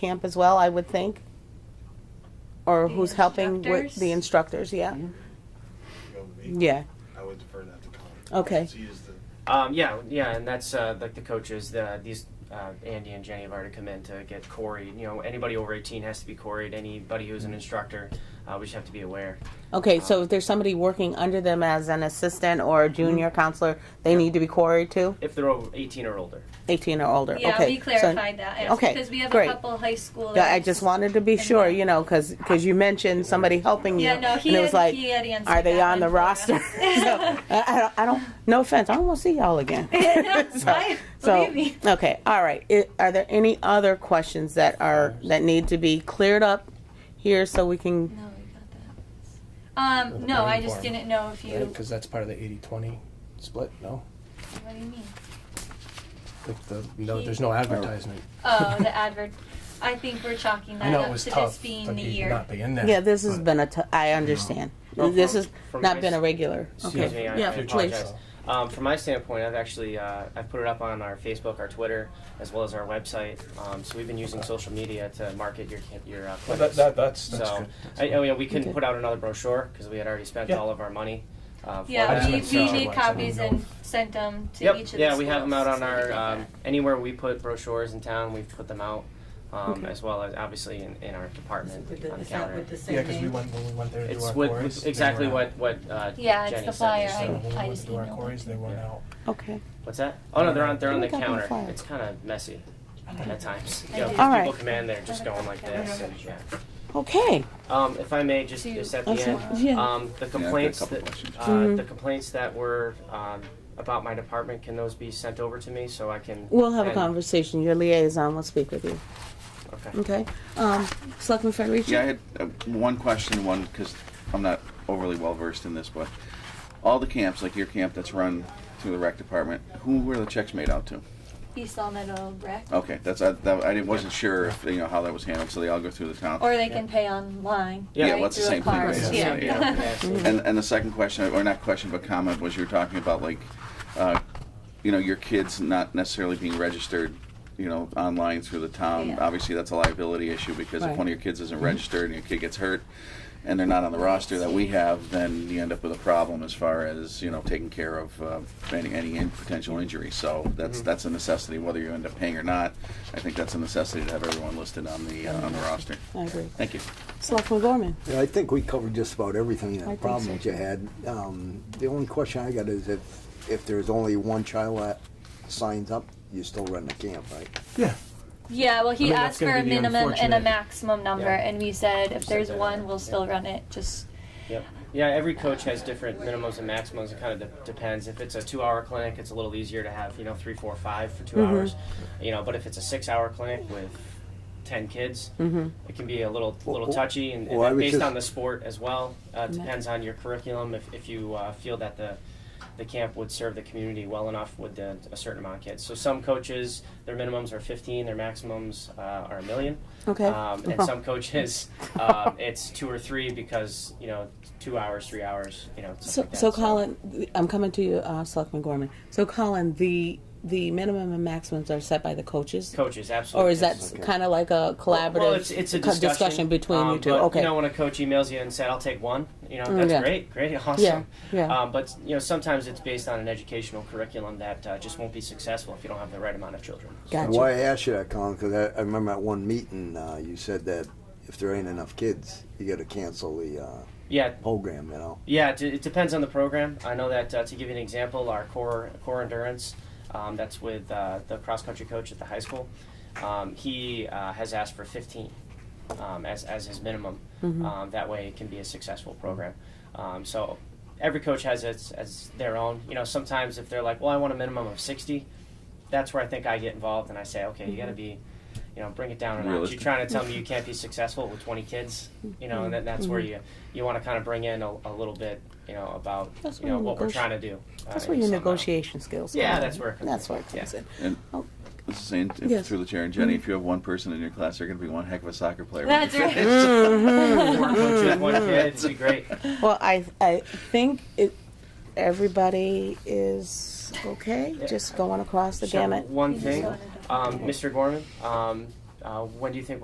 camp as well, I would think? Or The who's helping with the instructors, yeah? Go with me. Yeah, I would defer that to Connor. okay, She is the Um, yeah, yeah, and that's uh, like the coaches. The, these uh, Andy and Jenny have already come in to get Corey. You know, anybody over eighteen has to be Coreyed. Anybody who's Mm-hmm. an instructor, uh, we just have to be aware. okay, so if there's somebody working under them as an assistant or a junior counselor, they need to be quarried too, If they're over eighteen or older, eighteen or older, okay? Yeah, we so- clarified that. yes, okay, Because we have great. a couple high school. Yeah, I just wanted to be And sure, then- you know, because you mentioned somebody helping you, Yeah, no, and he it was had, like, he had answered are they that on the one for us. roster? so, I, I don't, I don't. No offense, I don't want to see y'all again. Right? So, Believe me. okay, all right. I are there any other questions that are that need to be cleared up here so we can? No, we got that. Um, no, I just didn't know if you, Because that's part of the 80-20 split, no? what do you mean? Like the, no, there's no advertisement. Oh, the advert, I think we're chalking I that know it up was to this tough, being like the you year. not be in there. Yeah, this has but- been a. T- I understand. No. This has From not my been a s- regular. Okay. excuse me, I, yeah, I please. apologize. Um, from my standpoint, I've actually uh, I've put it up on our Facebook, our Twitter, as well as our website. Um, so we've been using social media to market your ca- your uh, Well, clinics. that, that, that's, that's so good. I, oh yeah, we couldn't Okay. put out another brochure because we had already spent Yeah. all of our money. Uh, for Yeah, that. we, Advertisement, we so- made copies and sent them to each Yep. of the schools. yeah, we have them out on so we our did um, that. anywhere we put brochures in town. We've put them out, um, Okay. as well as obviously in, in our department With the- on the Is that counter. with the same Yeah, because we name? went, when we went there to do It's our with, quarries, with they exactly were out. what what uh, Yeah, it's Jenny the said, flyer. so- I- So when we I went just to do our emailed it quarries, they went Yeah. out. Okay. What's that? Oh no, they're on they're on Who the got the counter. flyer? It's kind of messy at times. I You know, did. people Alright. come in, they're just going like this. And, yeah. Okay. Um, if I may, just To- just at the Also, end, yeah. um, the complaints couple that questions. uh, Mhm. the complaints that were um, about my department can those be sent over to me so I can We'll have a and- conversation. Your liaison will speak with you. Okay. Okay. Um, Selectman Federici. Yeah, I had uh, one question, one, because I'm not overly well versed in this, but all the camps, like your camp that's run through the rec department, who were the checks made out to? East Long Meadow Rec, Oh. Okay, that's, I, that, I didn't- wasn't sure if, you know, how that was handled, so they all go through the town. or they can pay online, Yeah, right, well, it's the through a same thing, card. right? It's the Yeah. same, yeah. Mm-hmm. Mm-hmm. And, and the second question, or not question, but comment, was you were talking about like, uh, you know, your kids not necessarily being registered, you know, online through the town. Yeah. Obviously, that's a liability issue because Right. if one of your kids isn't registered and your kid gets hurt and they're not on the roster that we have, then you end up with a problem as far as, you know, taking care of uh, any, any in- potential injury. So that's, that's a necessity, whether you end up paying or not. I think that's a necessity to have everyone listed on the, uh, on the roster. I agree. Thank you. Selectman Gorman. Yeah, I think we covered just about everything, I think that problem so. that you had. Um, the only question I got is if, if there's only one child that signs up, you still run the camp, right? Yeah, Yeah, well, he I mean, that's asked for gonna a be the minimum and a unfortunate- maximum number, Yeah. and we said if said there's that, one, yeah. we'll still run it. Just Yep. Yeah, every coach has different minimums and maximums. It kind of de- depends. If it's a two-hour clinic, it's a little easier to have you know three, four, five for 2 hours. You know, but if it's a six-hour clinic with ten kids, it can be a little little Well, touchy, and, and well, I that- was based just- on the sport as well. Uh, it Ma- depends on your curriculum. If if you uh, feel that the the camp would serve the community well enough with the, a certain amount of kids. So some coaches, their minimums are 15, their maximums uh, are a million. Okay. Um, and some coaches, um, it's two or three because you know two hours, three hours, you know. stuff So, like that. so Colin, I'm coming to you, uh, Selectman Gorman. So Colin, the the minimum and maximums are set by the coaches, coaches, absolutely. or is that yes. kind of like a collaborative Well, it's, it's a co- discussion, between um, you two? but, okay. Mm, You know, when a coach emails you and said, "I'll take one," you know, that's yeah. great, great, awesome. yeah, yeah. Um, but you know, sometimes it's based on an educational curriculum that uh, just won't be successful if you don't have the right amount of children. gotcha. And why I asked you that, Colin, because I, I remember at one meeting, uh, you said that if there ain't enough kids, you gotta cancel the, uh, Yeah, program, you know? Yeah, it, it depends on the program. I know that uh, to give you an example, our core core endurance, um, that's with uh, the cross country coach at the high school. Um, he uh, has asked for 15 um, as as his minimum. Um, that way, it can be a successful program. Um, so every coach has its as their own. You know, sometimes if they're like, well, I want a minimum of 60, that's where I think I get involved and I say, okay, you got to be. You know, bring it down a notch. You're Realistic. trying to tell me you can't be successful with 20 kids. You know, and that, that's where you you want to kind of bring in a, a little bit, you know, about That's you know where you what we're negoti- trying to do. uh, That's where in your some, uh, negotiation skills. Yeah, come in. that's where it comes that's in. where it comes Yeah. in. And Oh. this is saying, if- Yes. through the chair, and Jenny, if you have one person in your class, they're going to be one heck of a soccer player. when That's you right. finish. Four coaches, one kid, it'd be great. Well, I I think it. Everybody is okay. Yeah. Just going across the So, gamut. One You just thing, wanted to- um, Mr. Gorman, um, uh, when do you think